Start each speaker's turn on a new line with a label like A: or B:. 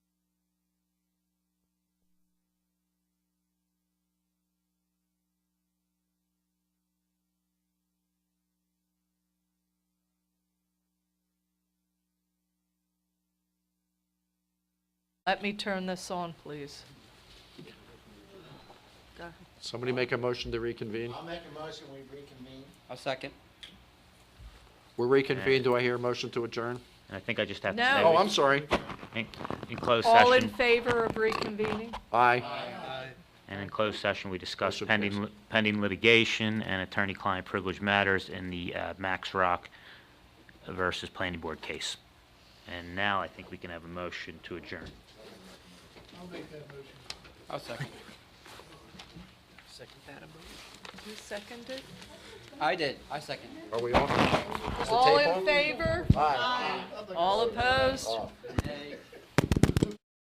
A: Let me turn this on, please. Go ahead.
B: Somebody make a motion to reconvene.
C: I'll make a motion, we reconvene.
D: I'll second.
B: We're reconvened. Do I hear a motion to adjourn?
E: And I think I just have to
A: No.
E: say.
B: Oh, I'm sorry.
E: In in closed
A: All in
E: session,
A: favor of reconvening?
B: Aye.
E: and in closed session, we discussed
B: Motion
E: pending,
B: passed.
E: li- pending litigation and attorney-client privilege matters in the uh, Max Rock versus Planning Board case. And now I think we can have a motion to adjourn.
D: I'll second.
A: You seconded?
D: I did. I second.
B: Are we off?
A: All
B: tape
A: in
B: on?
A: favor? All opposed?